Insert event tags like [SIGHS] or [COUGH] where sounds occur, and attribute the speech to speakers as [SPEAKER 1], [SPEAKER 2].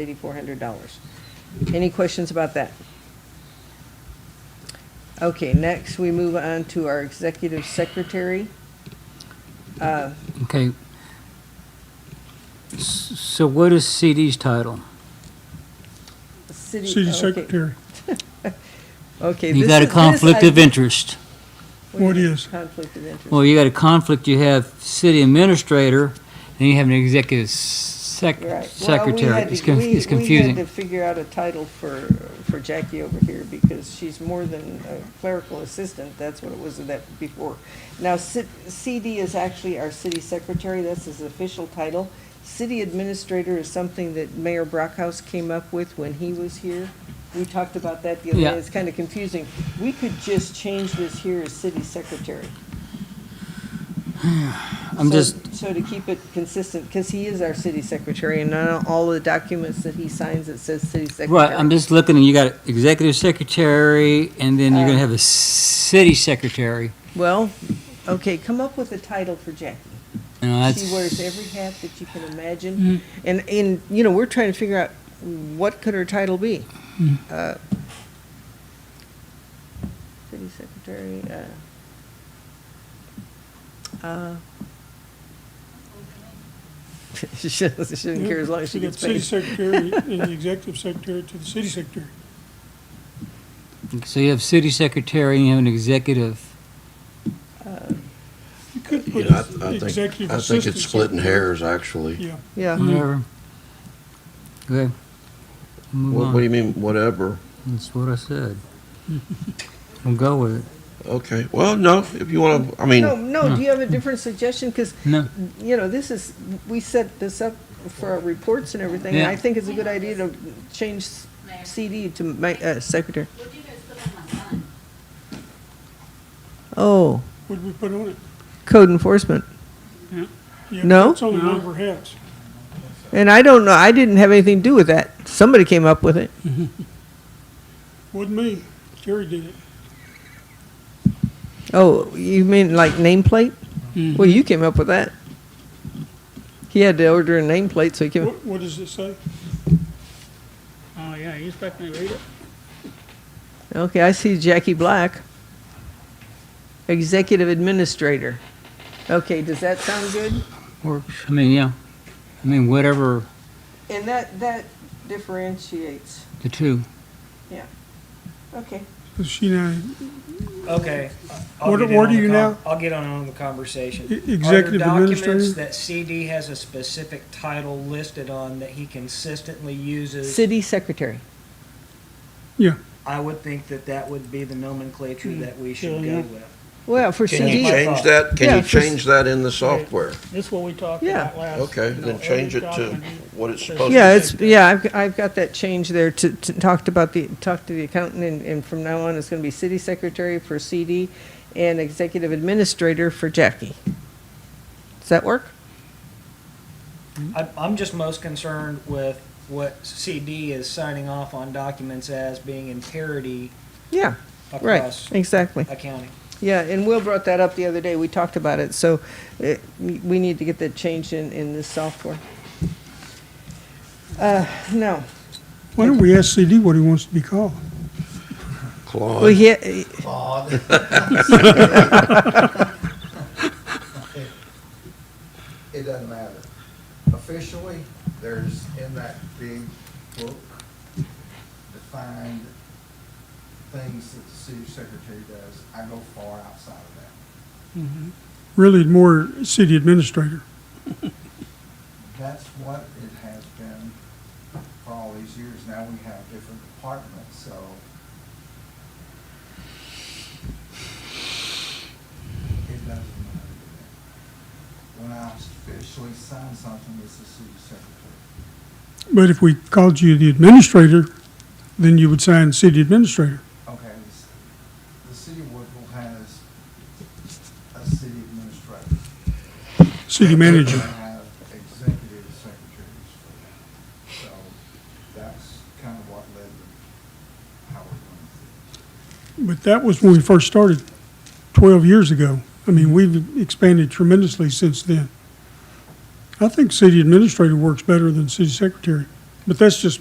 [SPEAKER 1] eighty-four hundred dollars. Any questions about that? Okay, next, we move on to our executive secretary. Uh,
[SPEAKER 2] Okay. S- So what is CD's title?
[SPEAKER 1] City.
[SPEAKER 3] City
[SPEAKER 1] Oh, okay.
[SPEAKER 3] Secretary.
[SPEAKER 1] Okay. this
[SPEAKER 2] You got a
[SPEAKER 1] is- this
[SPEAKER 2] conflict
[SPEAKER 1] I-
[SPEAKER 2] of interest.
[SPEAKER 3] What is?
[SPEAKER 1] Conflict of interest.
[SPEAKER 2] Well, you got a conflict, you have city administrator, and you have an executive sec-
[SPEAKER 1] Right. Well, we
[SPEAKER 2] secretary.
[SPEAKER 1] had
[SPEAKER 2] It's
[SPEAKER 1] to-
[SPEAKER 2] con-
[SPEAKER 1] we-
[SPEAKER 2] it's
[SPEAKER 1] We had
[SPEAKER 2] confusing.
[SPEAKER 1] to figure out a title for, for Jackie over here because she's more than a clerical assistant. That's what it was that before. Now, C- CD is actually our city secretary. That's his official title. City administrator is something that Mayor Brockhouse came up with when he was here. We talked about that the other
[SPEAKER 2] Yeah.
[SPEAKER 1] day. It's kind of confusing. We could just change this here as city
[SPEAKER 2] [SIGHS]
[SPEAKER 1] secretary.
[SPEAKER 2] I'm
[SPEAKER 1] So-
[SPEAKER 2] just,
[SPEAKER 1] So to keep it consistent, because he is our city secretary, and on all the documents that he signs, it says city secretary.
[SPEAKER 2] right, I'm just looking, and you got executive secretary, and then you're gonna
[SPEAKER 1] Uh,
[SPEAKER 2] have a city secretary.
[SPEAKER 1] Well, okay, come up with a title for Jackie.
[SPEAKER 2] You know,
[SPEAKER 1] She
[SPEAKER 2] that's-
[SPEAKER 1] wears every hat that you can
[SPEAKER 3] Mm.
[SPEAKER 1] imagine, and, and, you know, we're trying to figure out what could her title be?
[SPEAKER 3] Mm.
[SPEAKER 1] Uh, City secretary, uh, uh. [LAUGHS] She doesn't she doesn't care as long as she
[SPEAKER 3] You got
[SPEAKER 1] gets paid.
[SPEAKER 3] City Secretary and the Executive Secretary to the City Secretary.
[SPEAKER 2] So you have city secretary, and you have an executive.
[SPEAKER 3] You could
[SPEAKER 4] You
[SPEAKER 3] put
[SPEAKER 4] know, I- I think,
[SPEAKER 3] Executive
[SPEAKER 4] I think
[SPEAKER 3] Assistant.
[SPEAKER 4] it's splitting hairs, actually.
[SPEAKER 3] Yeah,
[SPEAKER 1] [LAUGHS] Yeah.
[SPEAKER 4] Mm.
[SPEAKER 2] Whatever. Okay. Move
[SPEAKER 4] What,
[SPEAKER 2] on.
[SPEAKER 4] what do you mean, whatever?
[SPEAKER 2] That's what I said. We'll go with it.
[SPEAKER 4] Okay, well, no, if you want to, I mean, mm.
[SPEAKER 1] No, no,
[SPEAKER 2] No.
[SPEAKER 1] do you have a different suggestion? Because,
[SPEAKER 2] No.
[SPEAKER 1] you know, this is, we set this up for our reports and everything, and I
[SPEAKER 2] Yeah.
[SPEAKER 1] think it's a good idea to change CD to ma- uh, secretary.
[SPEAKER 5] What do you guys put on my sign?
[SPEAKER 1] Oh,
[SPEAKER 3] would we put on it?
[SPEAKER 1] code enforcement.
[SPEAKER 3] Yeah,
[SPEAKER 1] No?
[SPEAKER 3] It's only one of our hats.
[SPEAKER 1] And I don't know, I didn't have anything to do with that. Somebody came up with it.
[SPEAKER 3] Wasn't me. Terry did it.
[SPEAKER 1] Oh, you mean like nameplate? Well, you came up with that. He had to order a nameplate, so he came,
[SPEAKER 3] What, what does it say?
[SPEAKER 6] Oh, yeah, you expect me to read it?
[SPEAKER 1] okay, I see Jackie Black. Executive Administrator. Okay, does that sound good?
[SPEAKER 2] Works. I mean, yeah. I mean, whatever
[SPEAKER 1] And that, that differentiates,
[SPEAKER 2] the two.
[SPEAKER 1] okay.
[SPEAKER 3] Does she know,
[SPEAKER 7] Okay. I'll
[SPEAKER 3] What-
[SPEAKER 7] get in
[SPEAKER 3] what
[SPEAKER 7] on
[SPEAKER 3] do
[SPEAKER 7] the
[SPEAKER 3] you
[SPEAKER 7] con-
[SPEAKER 3] now?
[SPEAKER 7] I'll get on, on the conversation.
[SPEAKER 3] E- executive
[SPEAKER 7] Are there documents
[SPEAKER 3] administrator?
[SPEAKER 7] that CD has a specific title listed on that he consistently uses?
[SPEAKER 1] City secretary.
[SPEAKER 7] I would think that that would be the nomenclature that we should
[SPEAKER 6] Yeah,
[SPEAKER 7] go
[SPEAKER 6] yeah.
[SPEAKER 7] with.
[SPEAKER 1] Well, for
[SPEAKER 4] can you
[SPEAKER 7] Yeah.
[SPEAKER 1] CD,
[SPEAKER 4] change that? Can
[SPEAKER 1] Yeah,
[SPEAKER 4] you
[SPEAKER 1] for s-
[SPEAKER 4] change that in the software?
[SPEAKER 6] This is what we talked
[SPEAKER 1] Yeah.
[SPEAKER 6] about last.
[SPEAKER 4] Okay,
[SPEAKER 6] you know,
[SPEAKER 4] then change it
[SPEAKER 6] every
[SPEAKER 4] to
[SPEAKER 6] document you-
[SPEAKER 4] what it's
[SPEAKER 6] says
[SPEAKER 4] supposed to be.
[SPEAKER 1] yeah, it's, yeah, I've, I've got that change there to, to talked about the, talked to the accountant and, and from now on it's gonna be city secretary for CD and executive administrator for Jackie. Does that work?
[SPEAKER 7] I'm, I'm just most concerned with what CD is signing off on documents as being in parity
[SPEAKER 1] Yeah, right,
[SPEAKER 7] across
[SPEAKER 1] exactly.
[SPEAKER 7] accounting.
[SPEAKER 1] Yeah, and Will brought that up the other day. We talked about it, so uh, we we need to get that changed in, in this software. Uh, no,
[SPEAKER 3] Why don't we ask CD what he wants to be called?
[SPEAKER 1] well,
[SPEAKER 4] Claude,
[SPEAKER 1] he,
[SPEAKER 8] It doesn't matter. Officially, there's in that big book defined things that the city secretary does. I go far outside of that.
[SPEAKER 3] Really more city administrator.
[SPEAKER 8] That's what it has been for all these years. Now we have different departments, so it doesn't matter. to me. When I officially sign something, it's the city secretary.
[SPEAKER 3] But if we called you the administrator, then you would sign city administrator.
[SPEAKER 8] Okay, this- the city of Woodville has a city administrator.
[SPEAKER 3] City
[SPEAKER 8] They
[SPEAKER 3] manager.
[SPEAKER 8] have executive secretaries for that. So that's kind of what led to how we're going through.
[SPEAKER 3] But that was when we first started, 12 years ago. I mean, we've expanded tremendously since then. I think city administrator works better than city secretary, But that's just